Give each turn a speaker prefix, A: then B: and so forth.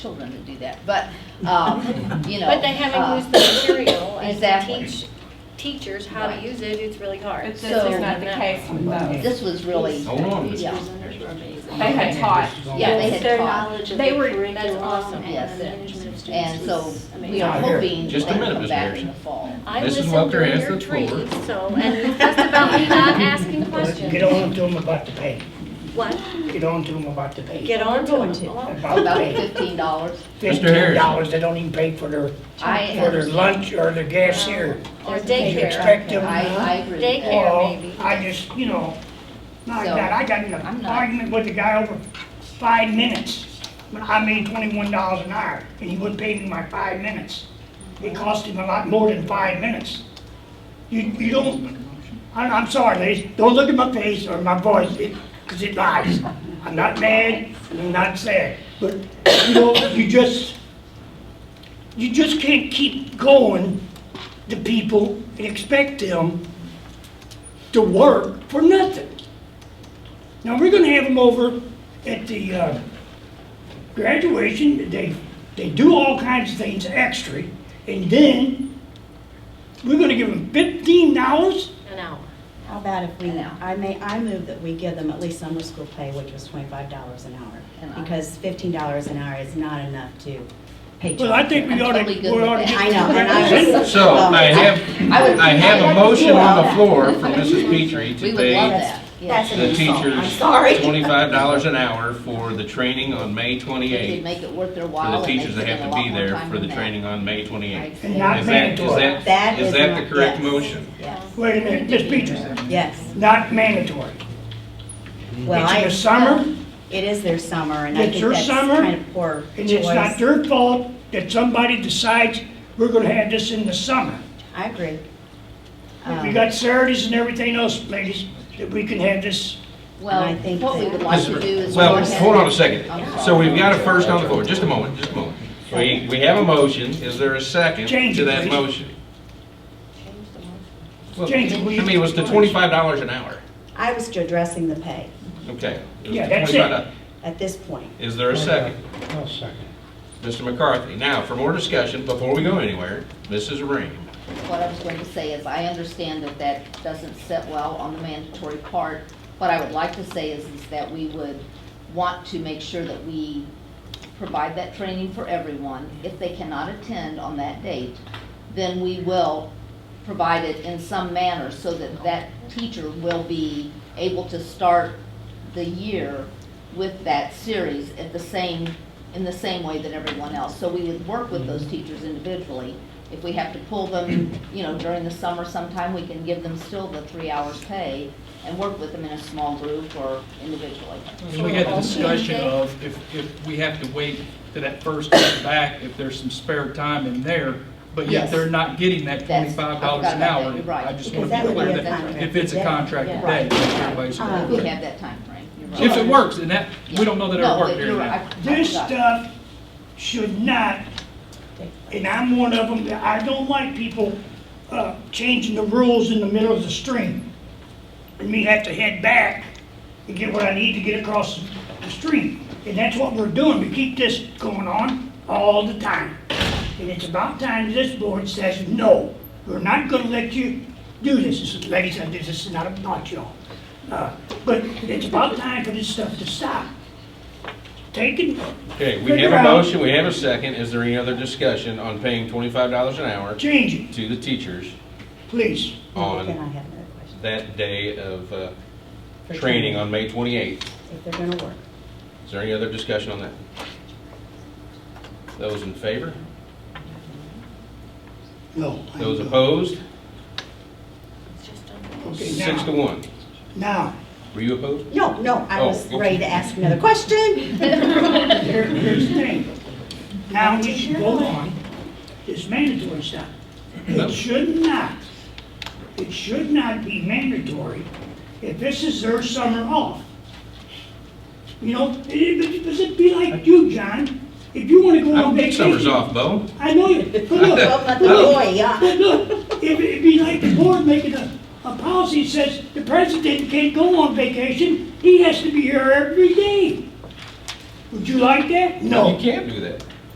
A: children to do that, but, um, you know.
B: But they haven't
A: uh,
B: used the material and to
A: Exactly.
B: teach teachers how to
A: Right.
B: use it, it's really hard.
C: But this
A: So-
C: is not the case with those.
A: This was really,
D: Hold on.
A: yeah,
C: They had taught.
A: yeah, they
B: Their
A: had taught.
B: knowledge of the
C: They were-
B: curriculum
A: That's awesome. Yes.
B: and the management of students
A: And so
B: was
A: we
B: amazing.
A: are
D: Now, here,
A: hoping
D: just a
A: they
D: minute,
A: come
D: Ms.
A: back
D: Harrison.
A: in the fall.
B: I
D: Mrs.
B: listened
D: Welker
B: during
D: has
B: your
D: the floor.
B: trees, so, and that's about me not asking
E: Get
B: questions.
E: on to them about the pay.
B: What?
E: Get on to them about the pay.
B: Get on to it. Well,
E: About
A: About
E: the pay.
A: fifteen dollars.
D: Mr.
E: Fifteen
D: Harrison.
E: dollars, they don't even pay for their,
A: I
E: for their
A: understand.
E: lunch or their gas here.
B: Or
E: You
B: daycare.
E: expect them,
A: I, I
E: huh?
A: agree. with
B: Daycare.
A: that.
E: Or,
B: maybe.
E: I just, you know, my
A: So,
E: God, I got in
A: I'm
E: an
A: not-
E: argument with the guy over five minutes. When I made twenty-one dollars an hour, and he wouldn't pay me my five minutes. It cost him a lot more than five minutes. You, you don't, I'm, I'm sorry, ladies, don't look at my face or my voice, it, cause it lies. I'm not mad, I'm not sad, but you know, you just, you just can't keep going to people and expect them to work for nothing. Now, we're gonna have them over at the, uh, graduation, they, they do all kinds of things extra, and then we're gonna give them fifteen dollars
B: An hour.
F: How about if we,
A: An hour.
F: I may, I move that we give them at least summer school pay, which was twenty-five dollars an
A: An
F: hour.
A: hour.
F: Because fifteen dollars an hour is not enough to pay.
E: Well, I
F: children.
E: think we
A: I'm
E: ought to,
A: totally
E: we
A: good with
E: ought to
A: that.
E: get.
F: I know, and I was.
D: So
F: well,
D: I
A: Um, I
D: have,
A: would-
D: I have a motion on the floor from Mrs. Petrie
A: uh, We
D: to
A: would love
D: pay
A: that, yes.
F: That's an
D: the
F: insult. I'm
D: teachers
F: sorry.
D: twenty-five dollars an hour for the training on May
A: We could
D: twenty-eighth.
A: make it worth their
D: For
A: while.
D: the
A: and
D: teachers
A: they
D: that have
A: spend a
D: to
A: lot
D: be
A: more
D: there
A: time
D: for the
A: than that.
D: training on May twenty-eighth.
A: I
E: And not
D: Is that, is
E: mandatory.
D: that, is that
F: not-
D: the correct
F: yes,
D: motion?
F: Yes,
E: Wait a minute, Miss Petrie,
F: yes.
E: not mandatory.
F: Well,
E: It's
F: I-
E: your summer,
F: It is their summer, and I
E: It's
F: think
E: your
F: that's
E: summer,
F: kind of poor
E: and it's not
F: choice.
E: their fault that somebody decides we're gonna have this in the summer.
F: I agree.
E: We
A: Oh.
F: Um,
E: got Saturdays and everything else, ladies, that we can have this,
A: Well,
F: And I think
A: what we
F: that-
A: would like to do is. go
D: Well,
A: ahead
D: hold on a
A: and-
D: second.
A: I'm
D: So
A: sorry.
D: we've got a first on the floor, just a moment, just a moment. We, we have a motion, is there a second
E: Change
D: to
E: it,
D: that
E: please.
D: motion? Well,
E: Change
D: I
E: it, will
D: mean,
E: you?
D: it was the twenty-five dollars an hour,
F: I was addressing the pay
D: okay. It was
E: Yeah,
D: the
E: that's it.
D: $25.
F: at this point.
D: Is there a second?
G: I'll second.
D: Mr. McCarthy. Now, for more discussion, before we go anywhere, Mrs. Rain.
A: What I was going to say is, I understand that that doesn't sit well on the mandatory part. What I would like to say is, is that we would want to make sure that we provide that training for everyone. If they cannot attend on that date, then we will provide it in some manner so that that teacher will be able to start the year with that series at the same, in the same way that everyone else. So we would work with those teachers individually. If we have to pull them, you know, during the summer sometime, we can give them still the three hours pay and work with them in a small group or individually.
H: So we had the discussion of if, if we have to wait to that first day back, if there's some spare time in there, but
A: Yes.
H: yet they're not getting that
A: That's- I
H: twenty-five dollars
A: forgot about
H: an
A: that.
H: hour.
A: You're right.
H: I just
F: Because
H: want to
F: that
H: be
F: would
H: clear
F: be a
H: that
F: contract
H: if it's a
F: day.
H: contracted
A: Right.
H: day, then everybody's
F: Uh,
A: We
H: going
A: have that time frame. you're right.
H: If it works, and that, we don't know that it'll
A: No,
H: work
A: you're
H: here
A: right.
H: now.
A: I- I
E: this
A: forgot.
E: stuff should not, and I'm one of them, that I don't like people, uh, changing the rules in the middle of the stream. And me have to head back and get what I need to get across the stream. And that's what we're doing, we keep this going on all the time. And it's about time this board says, no, we're not gonna let you do this. This is- Ladies, I- this is not about y'all. Uh, But it's about time for this stuff to stop. Taking,
D: Okay, we
E: Figure
D: have a
E: out.
D: motion, we have a second. Is there any other discussion on paying twenty-five dollars an hour
E: change it,
D: to the teachers
E: please.
F: Then I
D: on
F: have another question.
D: that day of uh,
F: For
D: training on May twenty-eighth?
F: If they're gonna work.
D: Is there any other discussion on that? Those in favor?
E: No. I
D: Those
E: don't.
D: opposed?
B: It's just unbelievable.
E: Okay,
D: Six to
E: now,
D: one.
E: now,
D: Were you opposed?
F: No, no, I
D: Oh,
F: was
D: okay.
F: ready to ask another question.
E: here- here's the thing. Now we should go on this mandatory stuff.
D: No.
E: It should not, it should not be mandatory if this is their summer off. You know, it, it, does it be like you, John? If you wanna go
D: I
E: on
D: don't think
E: vacation.
D: summer's off, Bo.
E: I know you, but look,
F: Well,
E: but
F: but
D: Oh.
E: look,
F: boy, yeah.
E: But look, if it'd be like the board making a, a policy that says the president can't go on vacation, he has to be here every day. Would you like that?
D: You can't do that.